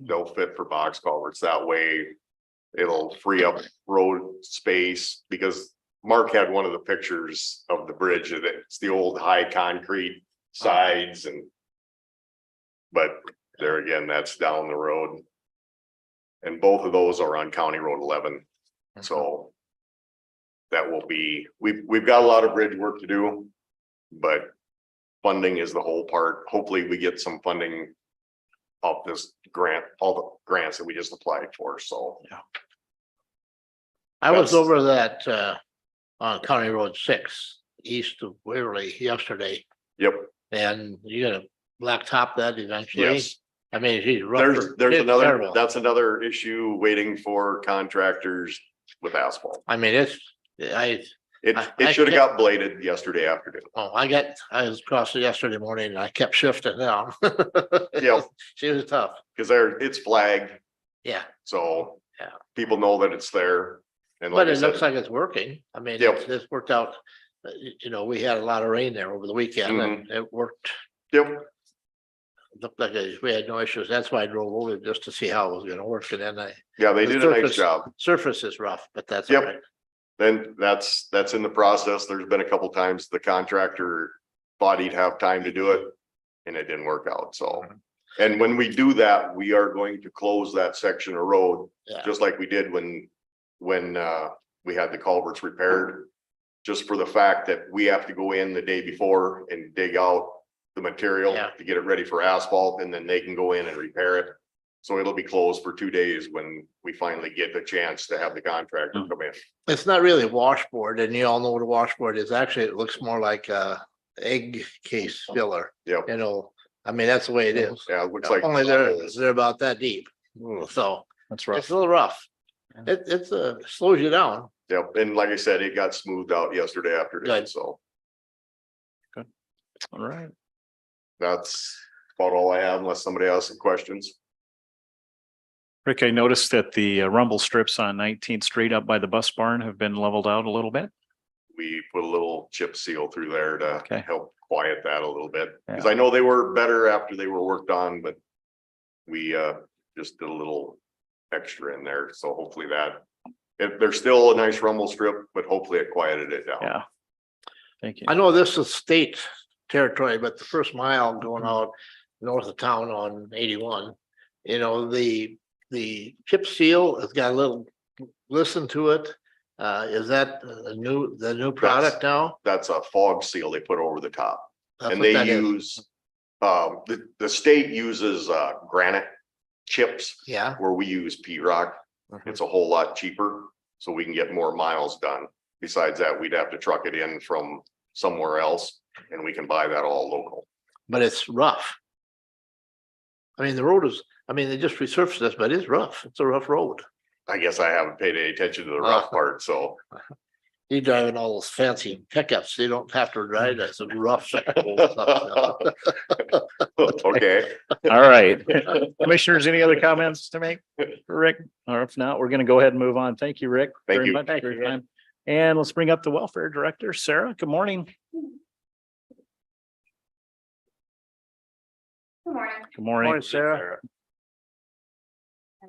they'll fit for box culverts. That way it'll free up road space because Mark had one of the pictures of the bridge and it's the old high concrete sides and but there again, that's down the road. And both of those are on County Road eleven, so that will be, we've, we've got a lot of bridge work to do, but funding is the whole part. Hopefully, we get some funding of this grant, all the grants that we just applied for, so. I was That's- over that, uh, on County Road six, east of Waverly yesterday, Yep, and you're gonna blacktop that eventually. yes. I mean, he's. There's, there's another, that's another issue waiting for contractors with asphalt. I mean, it's, I, It, I- I it should have can't- got bladed yesterday afternoon. oh, I got, I was crossing yesterday morning and I kept shifting down. Yeah, She was tough, because there, it's flagged, yeah, so. Yeah. People know that it's there. And like but I it looks said, like it's working. I mean, Yep. it's, it's worked out. Uh, y- You know, we had a lot of rain there over the weekend Mm-hmm. and it worked, yep, looked like it- we had no issues. That's why I drove over just to see how it was gonna work and then I yeah, they The did a nice surface- job. surface is rough, but that's. Yep. all right. Then that's, that's in the process. There's been a couple times the contractor thought he'd have time to do it. And it didn't work out, so. Mm-hmm. And when we do that, we are going to close that section of road, Yeah. just like we did when, when uh, we had the culverts repaired. Just for the fact that we have to go in the day before and dig out the material Yeah. to get it ready for asphalt, and then they can go in and repair it. So it'll be closed for two days when we finally get the chance to have the contractor Mm. come in. It's not really washboard and you all know what a washboard is. Actually, it looks more like a egg case filler, Yep. you know, I mean, that's the way it is. Yeah, it looks like. uh, Only they're, they're about that deep. So That's it's a little rough. It, it's a, slows you down. Yep, and like I said, it got smoothed out yesterday afternoon, Good. so All right. that's about all I have unless somebody has some questions. Rick, I noticed that the uh, rumble strips on Nineteenth Street up by the bus barn have been leveled out a little bit. We put a little chip seal through there to Okay. help quiet that a little bit, because I know they were better after they were worked on, but we uh just did a little extra in there, so hopefully that if there's still a nice rumble strip, but hopefully it quieted it down. Yeah. Thank you. I know this is state territory, but the first mile going out north of town on eighty-one, you know, the, the chip seal has got a little, listen to it. Uh, is that a new, the new product now? That's a fog seal they put over the top. That's And what they that is. use, um, the, the state uses, uh, granite chips Yeah, where we use P rock. Mhm. It's a whole lot cheaper, so we can get more miles done. Besides that, we'd have to truck it in from somewhere else and we can buy that all local. but it's rough. I mean, the road is, I mean, they just resurfaced this, but it's rough. It's a rough road. I guess I haven't paid any attention to the rough part, so You driving all those fancy pickups, you don't have to drive that. It's a rough. stuff. okay, All right. Commissioners, any other comments to make? for Rick, or if not, we're going to go ahead and move on. Thank you, Rick. Thank very you. much Thank for your you, Rick. time. And let's bring up the Welfare Director, Sarah. Good morning. Good morning. Good morning. Morning, Sarah. I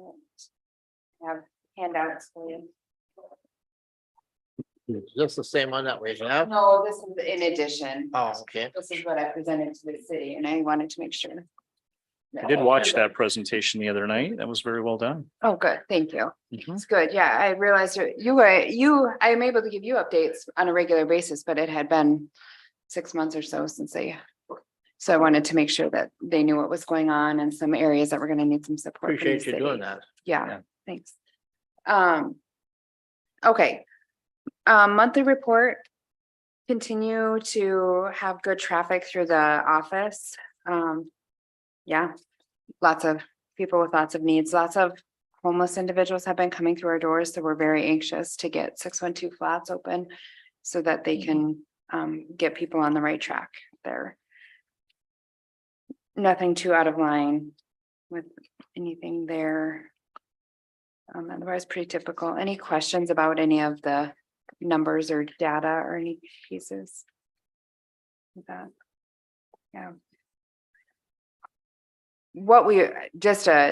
Have handouts for you. Just the same one that we have. No, this is in addition. Oh, okay. This is what I presented to the city and I wanted to make sure. I did watch that presentation the other night. That was very well done. Oh, good. Thank you. Mhm. It's good. Yeah, I realized you- you were, you, I am able to give you updates on a regular basis, but it had been six months or so since I. So I wanted to make sure that they knew what was going on and some areas that were gonna need some support. from the Appreciate you city. doing that. Yeah, Yeah. thanks. Um. Okay. Um, monthly report. Continue to have good traffic through the office. Um. Yeah, lots of people with lots of needs, lots of homeless individuals have been coming through our doors, so we're very anxious to get six one two flats open. So that they can um get people on the right track there. Nothing too out of line with anything there. Um, otherwise pretty typical. Any questions about any of the numbers or data or any pieces? With That. Yeah. What we, just a